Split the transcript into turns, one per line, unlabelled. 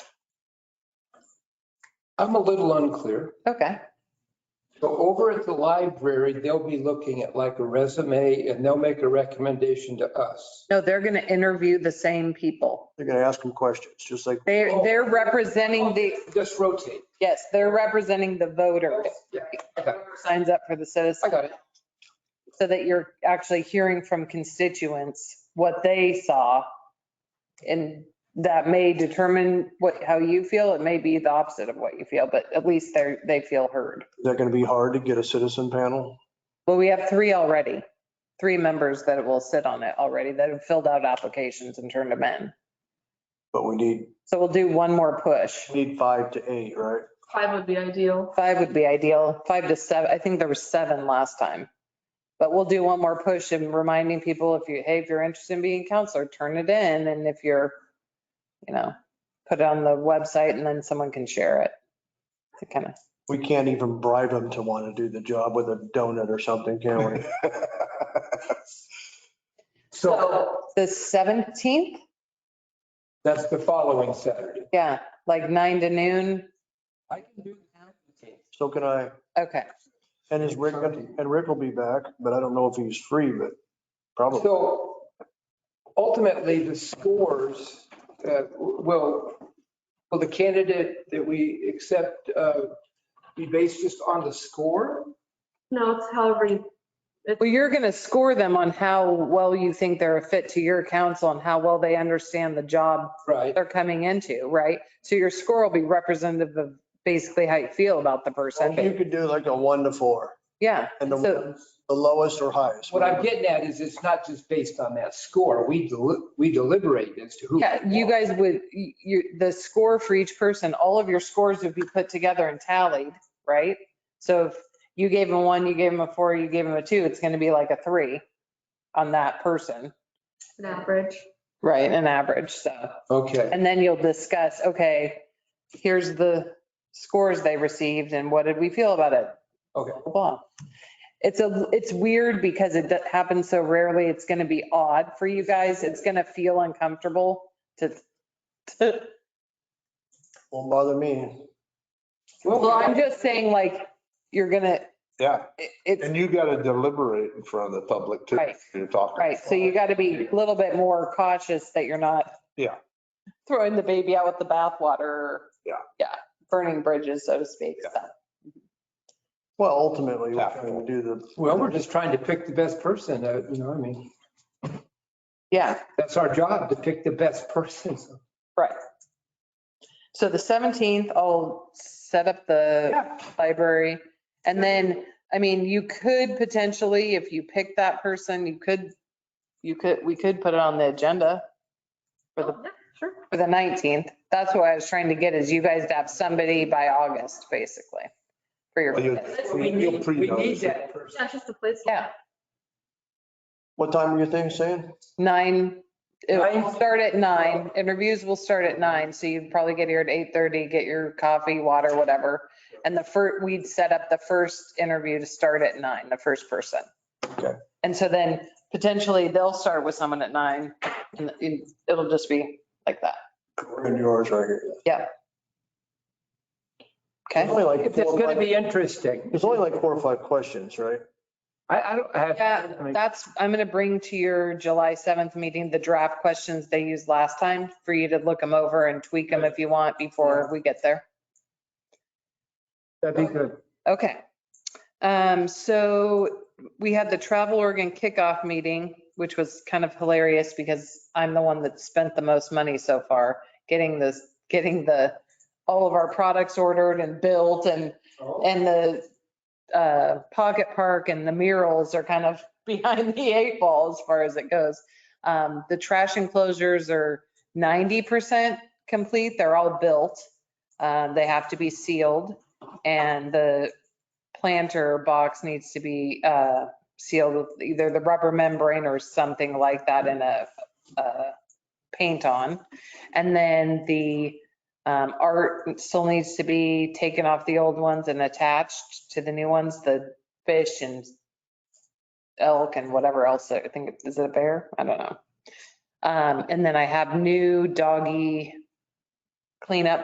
I'm a little unclear.
Okay,
So over at the library, they'll be looking at like a resume and they'll make a recommendation to us.
no, they're going to interview the same people.
They're going to ask them questions, just like,
They're,
Oh.
they're representing the,
Just rotate.
yes, they're representing the voter.
Yeah, okay.
Whoever Signs up for the
I
citizen,
got it.
so that you're actually hearing from constituents what they saw. And that may determine what, how you feel. It may be the opposite of what you feel, but at least they're, they feel heard.
is that going to be hard to get a citizen panel?
Well, we have three already, three members that will sit on it already that have filled out applications and turned them in.
But we need,
So we'll do one more push.
we need five to eight, right?
Five would be ideal.
Five would be ideal, five to seven. I think there were seven last time. But we'll do one more push and reminding people if you, hey, if you're interested in being a counselor, turn it in. And if you're, you know, put it on the website and then someone can share it. To kind of,
We can't even bribe them to want to do the job with a donut or something, can we?
So
the 17th?
that's the following Saturday.
Yeah, like nine to noon.
I can do that.
So can I,
Okay.
and is Rick, and Rick will be back, but I don't know if he's free, but probably.
So ultimately, the scores uh, will, will the candidate that we accept uh, be based just on the score?
No, it's however you,
Well, you're going to score them on how well you think they're a fit to your council and how well they understand the job
Right.
they're coming into, right? So your score will be representative of basically how you feel about the
You
person.
could do like a one to four,
Yeah.
and the,
So-
the lowest or highest.
What I'm getting at is it's not just based on that score. We, deli- we deliberate as to who.
Yeah, you guys would, you- you, the score for each person, all of your scores would be put together and tallied, right? So if you gave them one, you gave them a four, you gave them a two, it's going to be like a three on that person,
an average.
right? An average, so.
Okay,
And then you'll discuss, okay, here's the scores they received and what did we feel about it?
Okay.
Blah, Blah. It's a, it's weird because it do- happens so rarely. It's going to be odd for you guys. It's going to feel uncomfortable to, to,
Won't bother me.
well, I'm just saying like, you're gonna,
Yeah,
it- it's,
and you got to deliberate in front of the public too.
Right.
You're talking.
right, so you got to be a little bit more cautious that you're not.
Yeah.
Throwing the baby out with the bathwater.
Yeah.
Yeah, burning bridges, so to speak. so.
Well, ultimately, we're trying to do the.
well, we're just trying to pick the best person, uh, you know, what I mean,
Yeah.
that's our job to pick the best person. So
Right. So the 17th, I'll set up the library. And then, I mean, you could potentially, if you pick that person, you could, you could, we could put it on the agenda for the,
Oh, yeah, Sure.
for the 19th. That's what I was trying to get is you guys to have somebody by August, basically, for your.
Well, you-
candidates.
We need, we need
pre-notice.
that person.
Yeah, it's just a place.
Yeah,
What time are your things saying?
nine, it'll
Nine?
start at nine. Interviews will start at nine, so you'd probably get here at eight thirty, get your coffee, water, whatever. And the first, we'd set up the first interview to start at nine, the first person.
Okay.
And so then potentially they'll start with someone at nine and it- it'll just be like that.
We're in yours right here. It's
Okay?
only like
It's
four or
going to
five-
be interesting.
it's only like four or five questions, right?
I, I don't have.
Yeah,
I mean,
That's, I'm going to bring to your July 7th meeting the draft questions they used last time for you to look them over and tweak them if you want before we get there.
That'd be good.
Okay. Um, so we had the Travel Oregon kickoff meeting, which was kind of hilarious because I'm the one that spent the most money so far, getting this, getting the, all of our products ordered and built and, and the uh, pocket park and the murals are kind of behind the eight ball as far as it goes. Um, the trash enclosures are 90% complete. They're all built. Uh, they have to be sealed and the planter box needs to be uh, sealed with either the rubber membrane or something like that in a uh, paint on. And then the um, art still needs to be taken off the old ones and attached to the new ones, the fish and elk and whatever else. I think, is it a bear? I don't know. Um, And then I have new doggy cleanup